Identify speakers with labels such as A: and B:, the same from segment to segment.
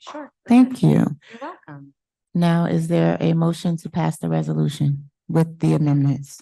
A: Sure.
B: Thank you.
A: You're welcome.
B: Now, is there a motion to pass the resolution with the amendments?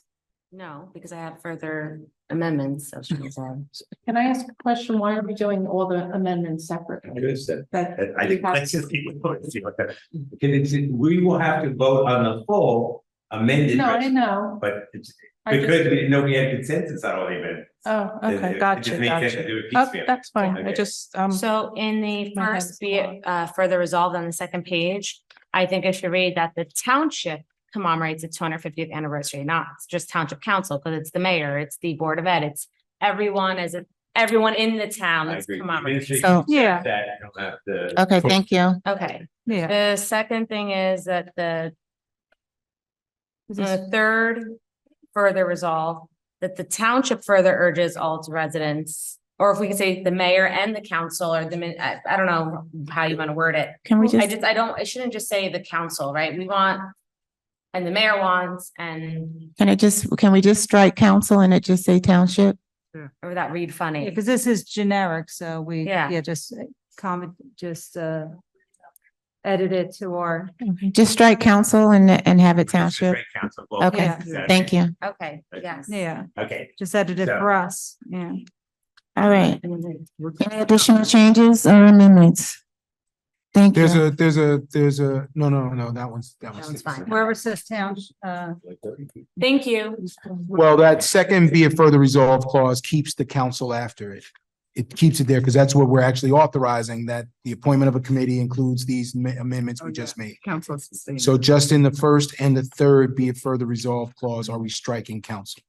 A: No, because I have further amendments. I was trying to say.
C: Can I ask a question? Why are we doing all the amendments separately?
D: Notice that.
C: That
D: I
C: we
D: think.
C: have-
D: Because it's, we will have to vote on the full amended,
C: No, I
D: res-
C: know.
D: but it's
C: I just-
D: because we didn't know we had consensus on all the amendments.
E: Oh,
D: it- it-
E: okay,
D: it
E: gotcha,
D: just makes sense to
E: gotcha.
D: do it
E: Oh,
D: piecemeal.
E: that's fine. I
D: Okay.
E: just, um,
A: So in the
E: My head's
A: first, be
E: gone.
A: it, uh, further resolved on the second page, I think I should read that the township commemorates its two hundred fiftieth anniversary, not just township council, because it's the mayor, it's the board of ed, it's everyone as, a- everyone in the town
D: I
A: that's
D: agree.
A: commemorating.
D: Administration
B: So,
E: yeah,
D: That you don't have to.
B: okay, thank you.
A: Okay,
E: yeah.
A: the second thing is that the
E: This is-
A: The third, further resolve that the township further urges all its residents, or if we could say the mayor and the council or the, min- I, I don't know how you want to word it.
B: Can we
A: Oh, I
B: just,
A: just, I don't, I shouldn't just say the council, right? We want, and the mayor wants, and,
B: can it just, can we just strike council and it just say township?
A: or that read
F: Yeah,
A: funny.
F: because this is generic, so we,
A: Yeah.
F: yeah, just uh, comment, just uh edit it to our,
B: Just strike council and, and have it township?
D: Great council vote.
B: Okay,
D: Yeah.
B: Thank you.
A: Okay, yes.
F: yeah,
D: Okay,
F: just edit it
D: So-
F: for us, yeah.
B: All right. Any additional changes or amendments? Thank
G: There's
B: you.
G: a, there's a, there's a, no, no, no, that one's,
A: That
G: that one's.
A: one's fine.
F: Wherever says town, uh,
A: Thank you.
G: Well, that second be it further resolved clause keeps the council after it. It keeps it there because that's what we're actually authorizing, that the appointment of a committee includes these ma- amendments we just made.
H: Council.
G: So just in the first and the third be it further resolved clause, are we striking council?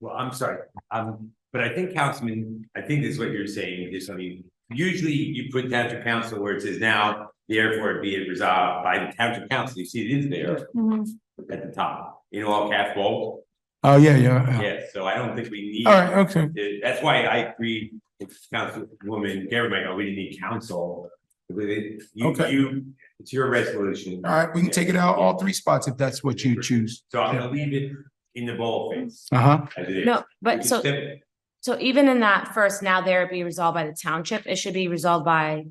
D: well, I'm sorry, um, but I think Councilman, I think this is what you're saying, is, I mean, usually you put township council where it says now, therefore be it resolved by the township council, you see it is there
A: mm-hmm.
D: at the top, in all caps bold.
G: Oh, yeah, yeah. yeah.
D: Yeah, so I don't think we need.
G: All right, okay.
D: Uh, That's why I agree with Councilwoman Gerber, we didn't need council. You,
G: Okay.
D: you, it's your resolution.
G: All right, we can take it out all three spots if that's what you choose.
D: So I'm gonna leave it in the boldface.
G: Uh huh.
D: as it is.
A: No,
D: We
A: but
D: can
A: so,
D: step it.
A: so even in that first, now there be resolved by the township, it should be resolved by,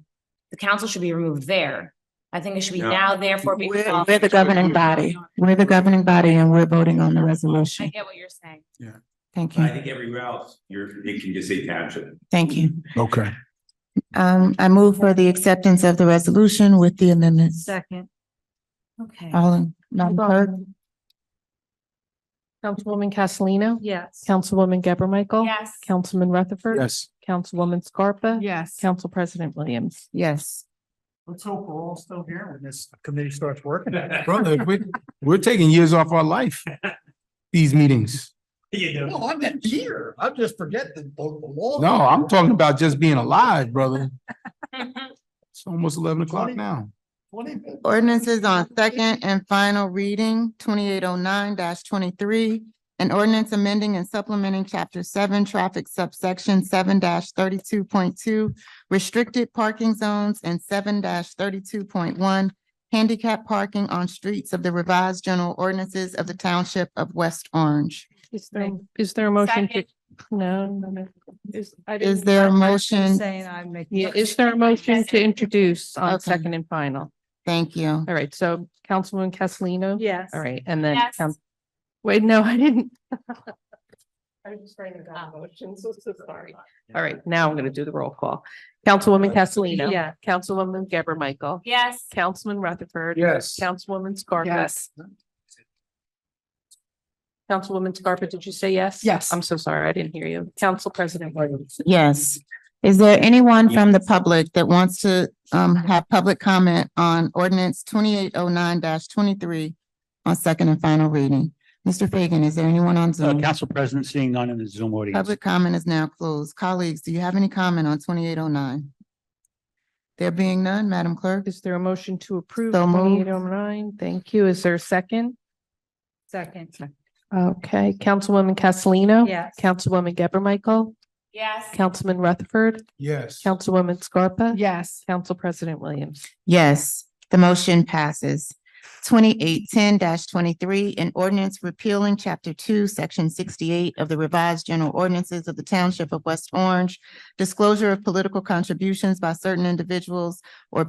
A: the council should be removed there. I think it should be
D: No.
A: now therefore be
B: We're
A: resolved.
B: we're the governing body. We're the governing body and we're voting on the
A: I
B: resolution.
A: get what you're saying.
B: Thank
D: But I
B: you,
D: think everywhere else, you're, it can just say township.
B: thank you.
G: Okay.
B: Um, I move for the acceptance of the resolution with the amendments.
F: second,
A: Okay.
C: Uh,
B: All in, Madam Clerk?
C: Councilwoman Castellino?
F: yes.
C: Councilwoman Gabor Michael?
A: Yes.
C: Councilman Rutherford?
G: Yes.
C: Councilwoman Scarpa?
H: Yes.
C: Council President Williams?
B: Yes.
H: Let's hope we're all still here when this committee starts working.
G: Brother, we're, we're taking years off our life. These meetings.
D: You know.
H: No, I'm not here. I'm just forgetting the the law.
G: No, I'm talking about just being alive, brother. It's almost eleven o'clock
H: Twenty-
G: now.
H: Twenty-
B: Ordinances on second and final reading, twenty-eight oh nine twenty-three. An ordinance amending and supplementing chapter seven, traffic subsection seven thirty-two point two, restricted parking zones and seven thirty-two point one, handicap parking on streets of the revised general ordinances of the township of West Orange.
C: Is there, is there a motion to?
A: Second.
C: No, no, no. Is, I
B: Is
C: didn't,
B: there a
F: She's
B: motion?
F: Saying I make.
C: yeah, is there a motion to introduce on
B: Okay.
C: second and final?
B: Thank you.
C: All right, so Councilwoman Castellino?
F: Yes.
C: All right, and then,
A: Yes.
C: Coun- wait, no, I didn't. I'm just writing down motions, so sorry. All right, now I'm gonna do the roll call. Councilwoman Castellino.
F: Yeah.
C: Councilwoman Gabor Michael.
A: Yes.
C: Councilman Rutherford.
G: Yes.
C: Councilwoman Scarpa.
H: Yes.
C: Councilwoman Scarpa, did you say yes?
H: Yes.
C: I'm so sorry, I didn't hear you. Council President Williams.
B: Yes. Is there anyone from the public that wants to um have public comment on ordinance twenty-eight oh nine twenty-three on second and final reading? Mr. Fagan, is there anyone on
I: Uh,
B: Zoom?
I: Council President, seeing none in the Zoom audience.
B: Public comment is now closed. Colleagues, do you have any comment on twenty-eight oh nine? There being none, Madam Clerk?
C: Is there a motion to approve
B: So moved.
C: twenty-eight oh nine? Thank you. Is there a second?
F: Second,
C: Okay, Councilwoman Castellino.
F: yes.
C: Councilwoman Gabor Michael.
A: Yes.
C: Councilman Rutherford.
G: Yes.
C: Councilwoman Scarpa.
H: Yes.
C: Council President Williams.
B: Yes, the motion passes. Twenty-eight ten twenty-three, an ordinance repealing chapter two, section sixty-eight of the revised general ordinances of the township of West Orange, disclosure of political contributions by certain individuals